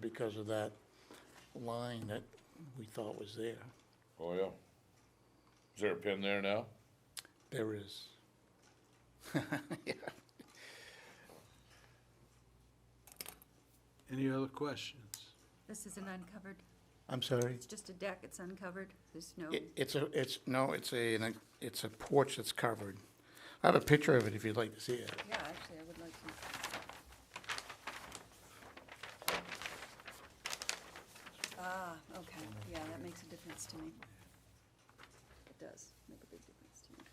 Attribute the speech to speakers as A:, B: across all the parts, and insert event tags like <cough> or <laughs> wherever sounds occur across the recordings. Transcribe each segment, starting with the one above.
A: because of that line that we thought was there.
B: Oh, yeah. Is there a pin there now?
A: There is.
C: Any other questions?
D: This is an uncovered,
A: I'm sorry?
D: it's just a deck, it's uncovered, there's no,
A: It, it's a, it's, no, it's a, an- it's a porch that's covered. I have a picture of it if you'd like to see it.
D: yeah, actually, I would like to. Ah, okay, yeah, that makes a difference to me. It does make a big difference to me,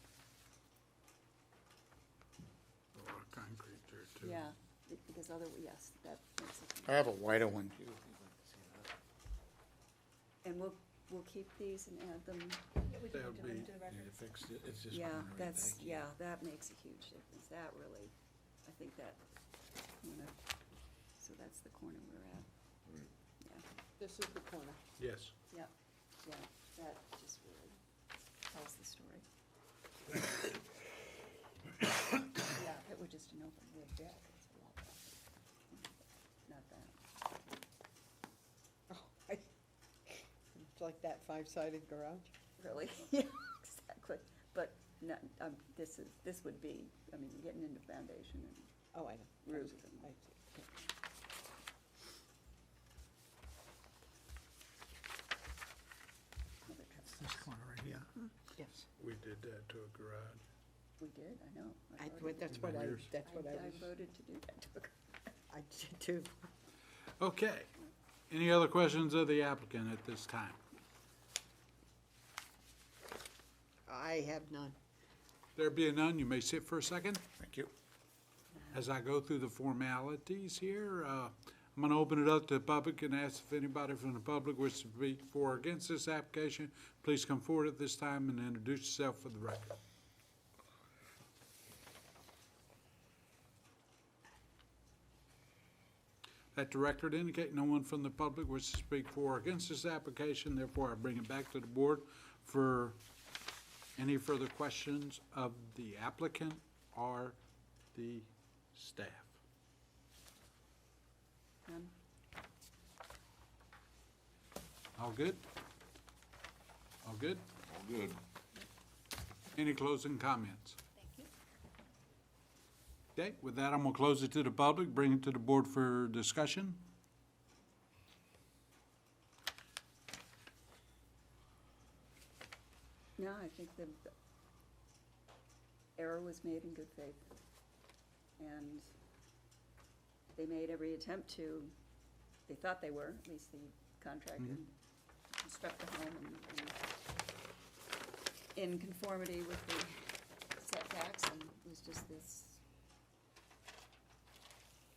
C: Oh, A lot of concrete there, too.
D: yeah, be- because other, yes, that makes
A: I
D: a
A: have a wider one. too.
D: And we'll, we'll keep these and add them,
C: That would be, you fixed it, it's just
D: yeah,
C: one right there.
D: that's, yeah, that makes a huge difference, that really, I think that, you know, so that's the corner we're at. Yeah.
E: This is the corner.
C: Yes.
D: Yep, yeah, that just really tells
C: <coughs>
D: the story. Yeah, if it were just an open wood deck, it's a lot better. Not that.
E: <laughs> It's Oh, like that five-sided garage.
D: Really, <laughs> yeah, exactly, but no, um, this is, this would be, I mean, getting into foundation and
E: Oh, I know.
D: roof
E: I
D: and,
E: see.
F: This corner right here.
E: Yes,
C: We did that to a garage.
D: we did, I know.
E: I,
D: voted-
E: what- that's what I,
C: Years.
E: that's what I
D: I
E: was,
D: voted to do that. <laughs>
E: I did too.
C: Okay. Any other questions of the applicant at this time?
E: I have none.
C: There being none, you may sit for a second.
A: Thank you.
C: As I go through the formalities here, uh, I'm going to open it up to the public and ask if anybody from the public wishes to speak for or against this application. Please come forward at this time and introduce yourself for the record. Let the record indicate no one from the public wishes to speak for or against this application, therefore I bring it back to the board for any further questions of the applicant or the staff?
D: None?
C: All good? All good?
B: All good.
C: Any closing comments? Thank you. Okay, with that, I'm gonna close it to the public, bring it to the board for discussion.
D: No, I think the the error was made in good faith. And they made every attempt to, they thought they were, at least the contractor, construct the home and, and in conformity with the setbacks and it was just this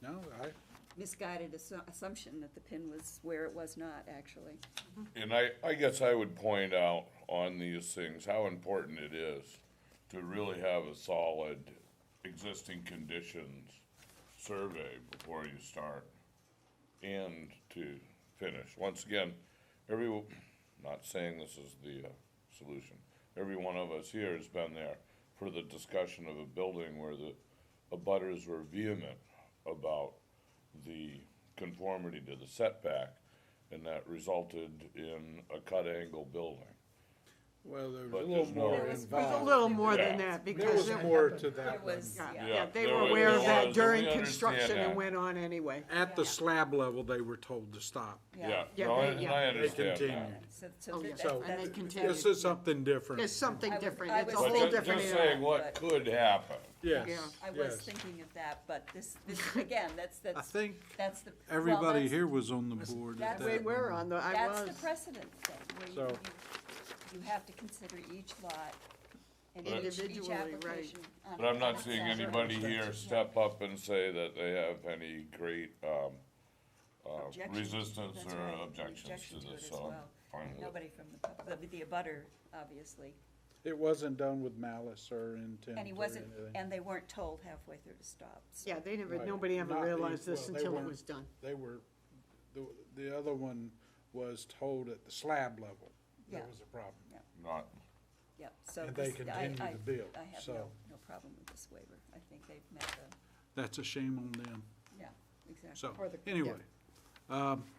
C: No, I,
D: misguided assu- assumption that the pin was where it was not actually.
B: And I, I guess I would point out on these things how important it is to really have a solid existing conditions survey before you start and to finish. Once again, every, not saying this is the uh, solution, every one of us here has been there for the discussion of a building where the abutters were vehement about the conformity to the setback, and that resulted in a cut angle building.
C: well, there was
B: But
C: a little
B: there's no-
C: more
B: There was-
E: There's a
C: involved.
E: little more than
B: Yeah.
E: that
C: There
E: because,
C: was
E: it-
C: more to that
D: It
C: one.
D: was,
E: yeah,
D: yeah.
E: yeah, they
B: there
E: were
B: was-
E: aware of
B: there was,
E: that
B: and we
E: during
B: understand
E: construction and
B: that.
E: went on anyway.
C: At the slab level, they were told to stop.
B: Yeah,
E: Yeah,
B: no,
E: they-
B: and
E: yeah.
B: I
C: They
B: understand that.
C: continued.
D: So,
E: Oh,
D: so
E: yeah.
D: that-
C: So-
D: that-
E: And they continued.
C: This is something different.
E: There's something
D: I would-
E: different.
D: I
E: It's a
D: was-
B: But
E: whole
B: ju-
E: different
B: Just
E: era.
B: saying what
D: but-
B: could happen.
C: Yes,
E: Yeah.
D: I was
C: yes.
D: thinking of that, but this, this,
E: <laughs>
D: again, that's,
C: I
D: that's,
C: think
D: that's the. well,
C: everybody
D: that's-
C: here was on the board at
D: that's-
C: that.
E: We were on the, I
D: That's
E: was.
D: the precedent thing, where you,
C: So-
D: you- you have to consider each lot and
B: But-
D: each, each
E: Individually, right.
D: application. um, on
B: But I'm
D: its
B: not
D: own.
B: seeing anybody here step up and say that they have any great, um, uh,
D: Objection.
B: resistance
D: That's
B: or
D: right.
B: objections
D: Objection
B: to
D: it
B: this,
D: as
B: so I'm
D: well.
B: fine with it.
D: Nobody from the, pub- the, the abutter, obviously,
C: It wasn't done with malice or intent
D: and he
C: or
D: wasn't,
C: anything.
D: and they weren't told halfway through to stop, so.
E: Yeah, they never,
C: Right.
E: nobody ever
C: Not the-
E: realized this
C: well, they
E: until it
C: weren't-
E: was done.
C: They were, the, the other one was told at the slab level there
D: Yeah.
C: was a problem.
B: Not,
D: Yep, so.
C: And they
D: this- I-
C: continue
D: I-
C: to build,
D: I have no,
C: so.
D: no problem with this waiver. I think they've met the,
C: That's a shame on them.
D: yeah, exactly.
C: So,
E: Or the- yeah.
C: anyway, um,